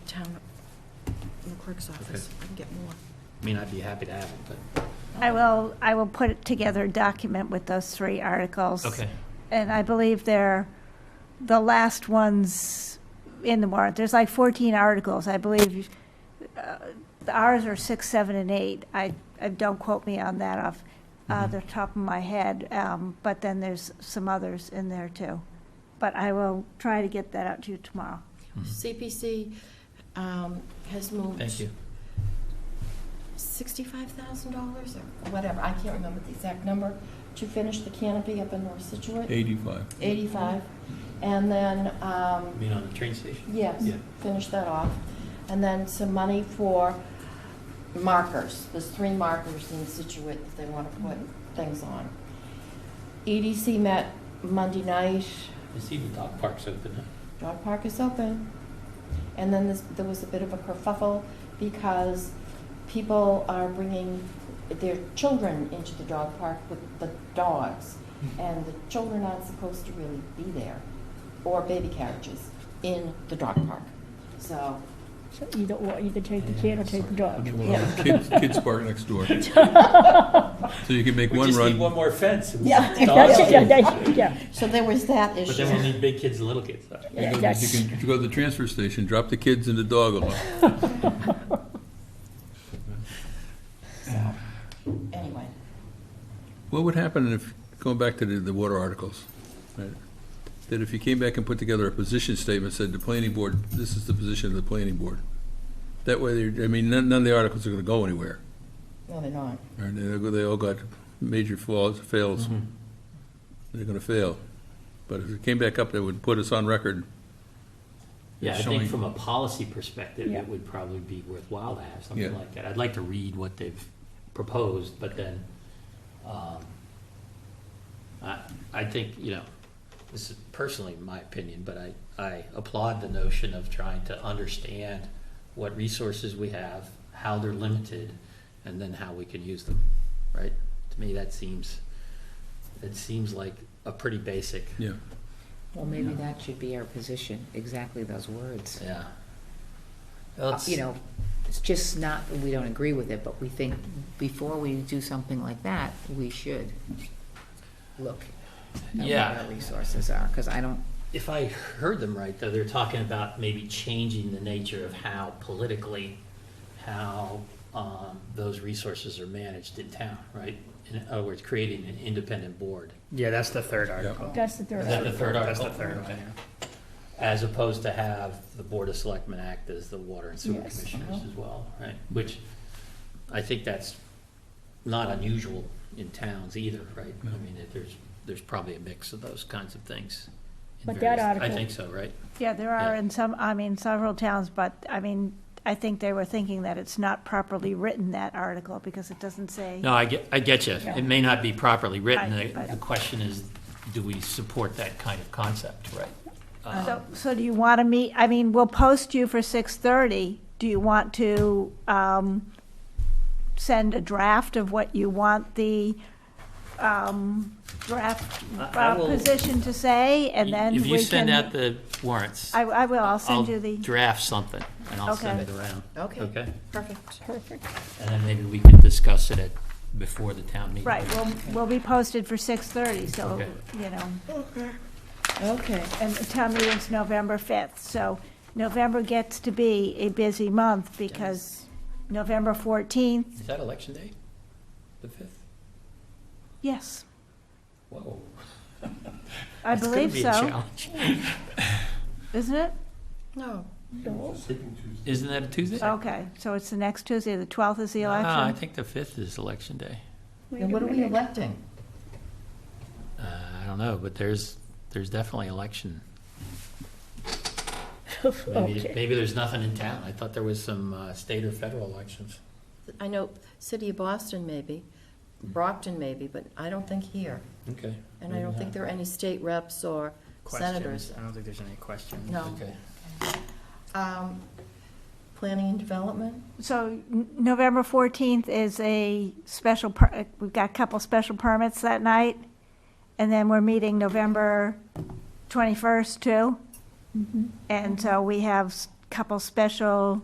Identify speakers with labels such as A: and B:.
A: clerk's office. I can get more.
B: I mean, I'd be happy to have it, but.
C: I will, I will put together a document with those three articles.
B: Okay.
C: And I believe they're the last ones in the warrant. There's like 14 articles, I believe. uh, Ours are six, seven, and eight. I, I- don't quote me on that off uh,
B: Mhm.
C: the top of my head. Um, But then there's some others in there too. But I will try to get that out to you tomorrow.
A: CPC um, has moved.
B: Mm-hmm. Thank you.
A: Sixty-five thousand dollars or whatever, I can't remember the exact number, to finish the canopy up in North Situate,
D: 85.
A: eighty-five. And then,
B: I
A: um,
B: mean, on the train station?
A: yes,
B: Yeah.
A: finish that off. And then some money for markers, there's three markers in Situate that they want to put things on. EDC met Monday night,
B: It's even dog parks open now.
A: dog park is open. And then this, there was a bit of a kerfuffle because people are bringing their children into the dog park with the dogs.
B: Hmm.
A: And the children aren't supposed to really be there, or baby carriages in the dog park. So,
E: So either or, either take the kid or take the dog.
D: Well, Kids, kids park next door. So you can make
B: We
D: one
B: just need one
D: run.
B: more fence. and
A: Yeah.
B: dogs
E: Yeah,
B: can-
E: yeah, yeah.
A: so there was that
B: But
A: issue.
B: then we'll need big kids and little kids. sorry.
D: You
E: Yeah,
D: go- You
E: yes.
D: can you go to the transfer station, drop the kids in the dog alone.
A: So, anyway,
D: What would happen if, going back to the, the water articles, right, that if you came back and put together a position statement, said the planning board, this is the position of the planning board? That way, they're- I mean, none, none of the articles are gonna go anywhere.
A: no, they're not.
D: And they all- they all got major flaws, fails.
B: Mm-hmm.
D: They're gonna fail. But if it came back up, that would put us on record.
B: Yeah, I
D: Showing-
B: think from a policy perspective,
E: Yeah.
B: it would probably be worthwhile to have something
D: Yeah.
B: like that. I'd like to read what they've proposed, but then, um, I, I think, you know, this is personally my opinion, but I, I applaud the notion of trying to understand what resources we have, how they're limited, and then how we can use them, right? To me, that seems, it seems like a pretty basic,
D: Yeah.
F: Well, maybe that should be our position, exactly those words.
B: yeah.
F: Uh, You know, it's just not, that we don't agree with it, but we think before we do something like that, we should look at what
B: Yeah.
F: our resources are, because I don't,
B: If I heard them right, though, they're talking about maybe changing the nature of how politically, how um, those resources are managed in town, right? In other words, creating an independent board.
G: Yeah, that's the third article.
E: That's the third.
B: Is that the third
G: That's
B: article?
G: the third one, yeah.
B: As opposed to have the Board of Selectmen act as the Water and Sewer
E: Yes. Uh-huh.
B: Commissioners as well, right? Which, I think that's not unusual in towns either, right? I
D: No.
B: mean, it- there's, there's probably a mix of those kinds of things. in
E: But that
B: various- I
E: article-
B: think so, right?
C: Yeah, there are
B: Yeah.
C: in some, I mean, several towns, but, I mean, I think they were thinking that it's not properly written, that article, because it doesn't say.
B: No, I get, I get you. It may not be properly written.
C: Right,
B: The
C: but-
B: the question is, do we support that kind of concept, right?
C: So, um, so do you want to meet, I mean, we'll post you for six-thirty. Do you want to, um, send a draft of what you want the, um, draft
B: I- I
C: uh,
B: will-
C: position to say, and then we
B: If
C: can.
B: you send out the warrants.
C: I, I will, I'll send you the.
B: draft something, and I'll send it
C: Okay.
B: around.
A: Okay.
B: Okay?
A: Perfect.
E: Perfect.
B: And then maybe we can discuss it at, before the town meeting.
C: Right, we'll, we'll be posted for six-thirty, so,
B: Okay.
C: you know,
A: Okay.
C: and the town meeting's November fifth, so November gets to be a busy month because November fourteenth,
B: Is that election day? The fifth?
C: yes,
B: Whoa.
C: I
B: That's gonna
C: believe
B: be a
C: so,
B: challenge.
C: isn't it?
A: No,
B: Isn't that a Tuesday?
C: Okay, so it's the next Tuesday, the twelfth is the
B: Ah, I
C: election.
B: think the fifth is election day.
E: Wait a
A: and what are we
E: minute.
A: electing?
B: Uh, I don't know, but there's, there's definitely election. Maybe,
E: Okay.
B: maybe there's nothing in town. I thought there was some uh, state or federal elections.
A: I know, city of Boston maybe, Brockton maybe, but I don't think here.
B: Okay.
A: And I don't think there are any state reps or senators.
G: Questions. I don't think there's any questions.
A: No.
B: Okay.
A: Um, Planning and development?
C: So n- November fourteenth is a special, per- uh, we've got a couple special permits that night, and then we're meeting November
E: Mm-hmm.
C: twenty-first too. And so we have a couple special